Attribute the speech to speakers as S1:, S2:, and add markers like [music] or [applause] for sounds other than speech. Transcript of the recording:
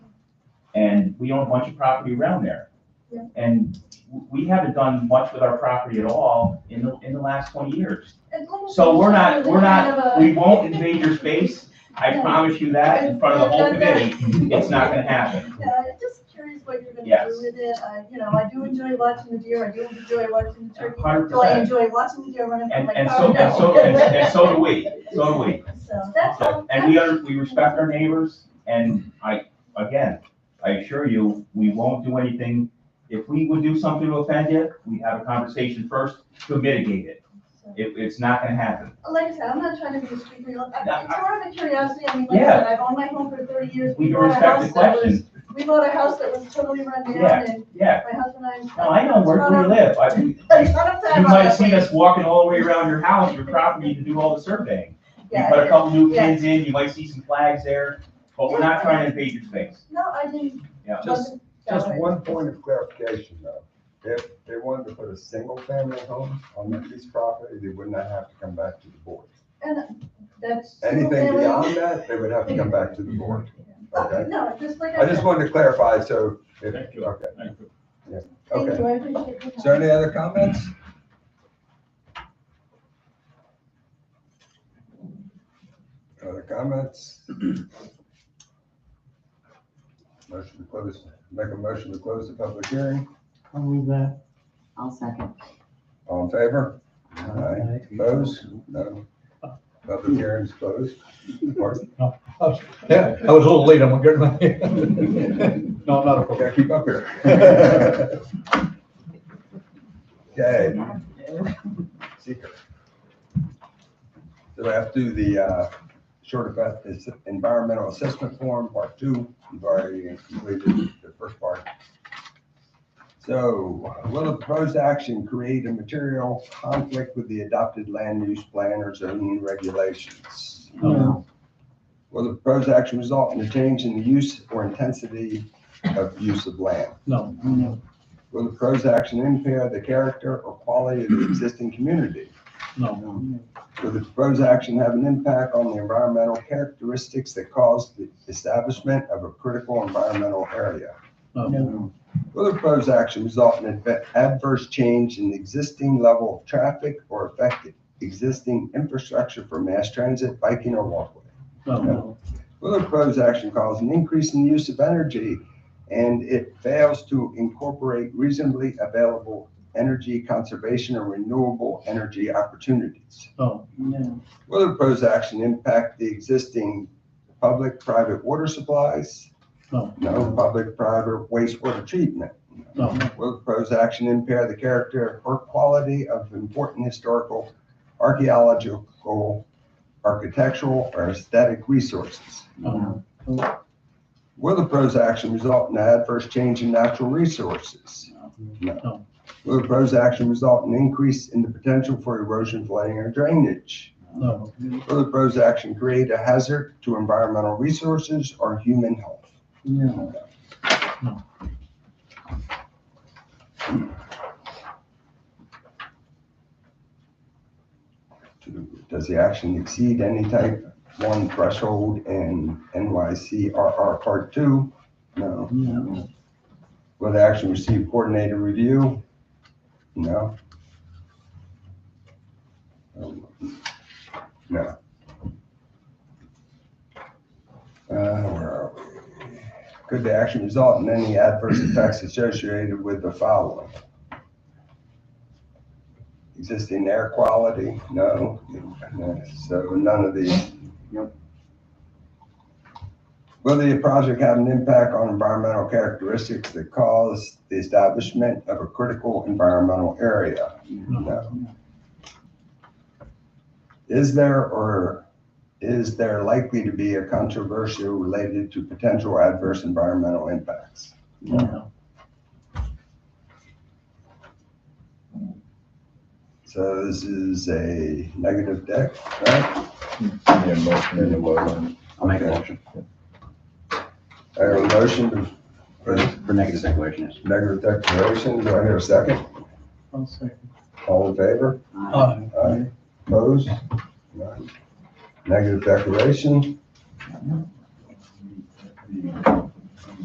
S1: we own a bunch of property around there.
S2: Yeah.
S1: And w- we haven't done much with our property at all in the, in the last twenty years. So we're not, we're not, we won't invade your space, I
S2: Yeah.
S1: promise you that, in front of the whole committee,
S3: Mm-hmm.
S1: it's not gonna happen.
S2: Yeah, just curious what you're gonna
S1: Yes.
S2: do with it, I, you know, I do enjoy watching the deer, I do enjoy watching the turkey.
S1: Hundred
S2: Do I
S1: percent,
S2: enjoy watching the deer running from
S1: and,
S2: my
S1: and
S2: car?
S1: so, and
S2: [laughs]
S1: so, and and so do we, so do we.
S2: So that's all.
S1: And we are, we respect our neighbors, and I, again, I assure you, we won't do anything. If we would do something to offend you, we have a conversation first to mitigate it.
S2: So,
S1: It, it's not gonna happen.
S2: Like I said, I'm not trying to be a street real, I-
S1: No,
S2: it's
S1: I-
S2: more of a curiosity, I mean, like I
S1: Yeah.
S2: said, I've owned my home for thirty years.
S1: We
S2: bought a
S1: respect the
S2: house that was-
S1: question,
S2: We bought a house that was totally run
S1: Yeah.
S2: down and
S1: yeah.
S2: my husband and I.
S1: Now, I know where
S2: [laughs]
S1: we live, I, you
S2: A ton of time on
S1: might have
S2: that
S1: seen
S2: place.
S1: us walking all the way around your house, your property, to do all the surveying. We
S2: Yeah,
S1: put a couple new
S2: Yeah.
S1: pins in, you might see some flags there, but we're not trying to invade your space,
S2: No, I didn't.
S1: yeah.
S2: wasn't that
S4: Just
S2: way.
S4: one point of clarification though, if they wanted to put a single family home on that piece of property, they would not have to come back to the board.
S2: That's.
S4: Anything
S2: [laughs]
S4: beyond that, they would have to come back to the board, okay?
S2: No, just like
S4: I
S2: I
S4: just
S2: said.
S4: wanted to clarify, so, if,
S5: Thank you.
S4: okay,
S5: Thank you.
S2: Thank
S4: okay.
S2: you, I appreciate your
S4: Is there
S2: time.
S4: any other comments? Other comments? Motion to close, make a motion to close the public hearing,
S6: I'll move that.
S7: I'll second.
S4: all in favor? Aye. Opposed? No. Public hearing's closed. Pardon?
S3: Yeah, I was a little late, I'm gonna [laughs] get my.
S6: No, I'm not.
S4: Gotta keep up here. [laughs] Okay. Secret. So after the, uh, short about this environmental assessment form, part two, we've already completed the first part. So will the proposed action create a material conflict with the adopted land use plan or zoning regulations?
S6: No.
S4: Will the proposed action result in a change in the use or intensity of use of land?
S6: No,
S4: Will the proposed action impair the character or quality of the existing community?
S6: no,
S4: Will the proposed action have an impact on the environmental characteristics that cause the establishment of a critical environmental area?
S6: no,
S4: Will the proposed action result in an adve- adverse change in the existing level of traffic or affect the existing infrastructure for mass transit, biking, or walkway?
S6: no,
S4: Will the proposed action cause an increase in the use of energy and it fails to incorporate reasonably available energy conservation or renewable energy opportunities?
S6: no,
S7: No.
S4: Will the proposed action impact the existing public-private water supplies?
S6: No.
S4: No public-private wastewater treatment?
S6: no,
S4: Will the proposed action impair the character or quality of important historical, archaeological, architectural, or aesthetic resources?
S6: no,
S4: Will the proposed action result in an adverse change in natural resources?
S6: No.
S4: Will the proposed action result in an increase in the potential for erosion, flooding, or drainage?
S6: no,
S4: Will the proposed action create a hazard to environmental resources or human health?
S7: No.
S4: Does the action exceed any type one threshold in NYCRR Part Two? No.
S7: No.
S4: Will the action receive coordinated review? No. Um, No. Uh, where are we? Could the action result in any adverse effects associated with the following? Existing air quality? No. So none of these? Yep. Will the project have an impact on environmental characteristics that cause the establishment of a critical environmental area? No. Is there or is there likely to be a controversy related to potential adverse environmental impacts?
S6: no,
S4: So this is a negative deck, right?
S5: Yeah, motion in the
S8: um, I'll make a
S4: Okay.
S8: motion
S4: I have a motion
S8: for,
S4: for
S8: for negative declaration, yes.
S4: negative declaration. Do I hear a second?
S6: I'll second.
S4: All in favor?
S6: Aye.
S4: Aye. Opposed? None. Negative declaration.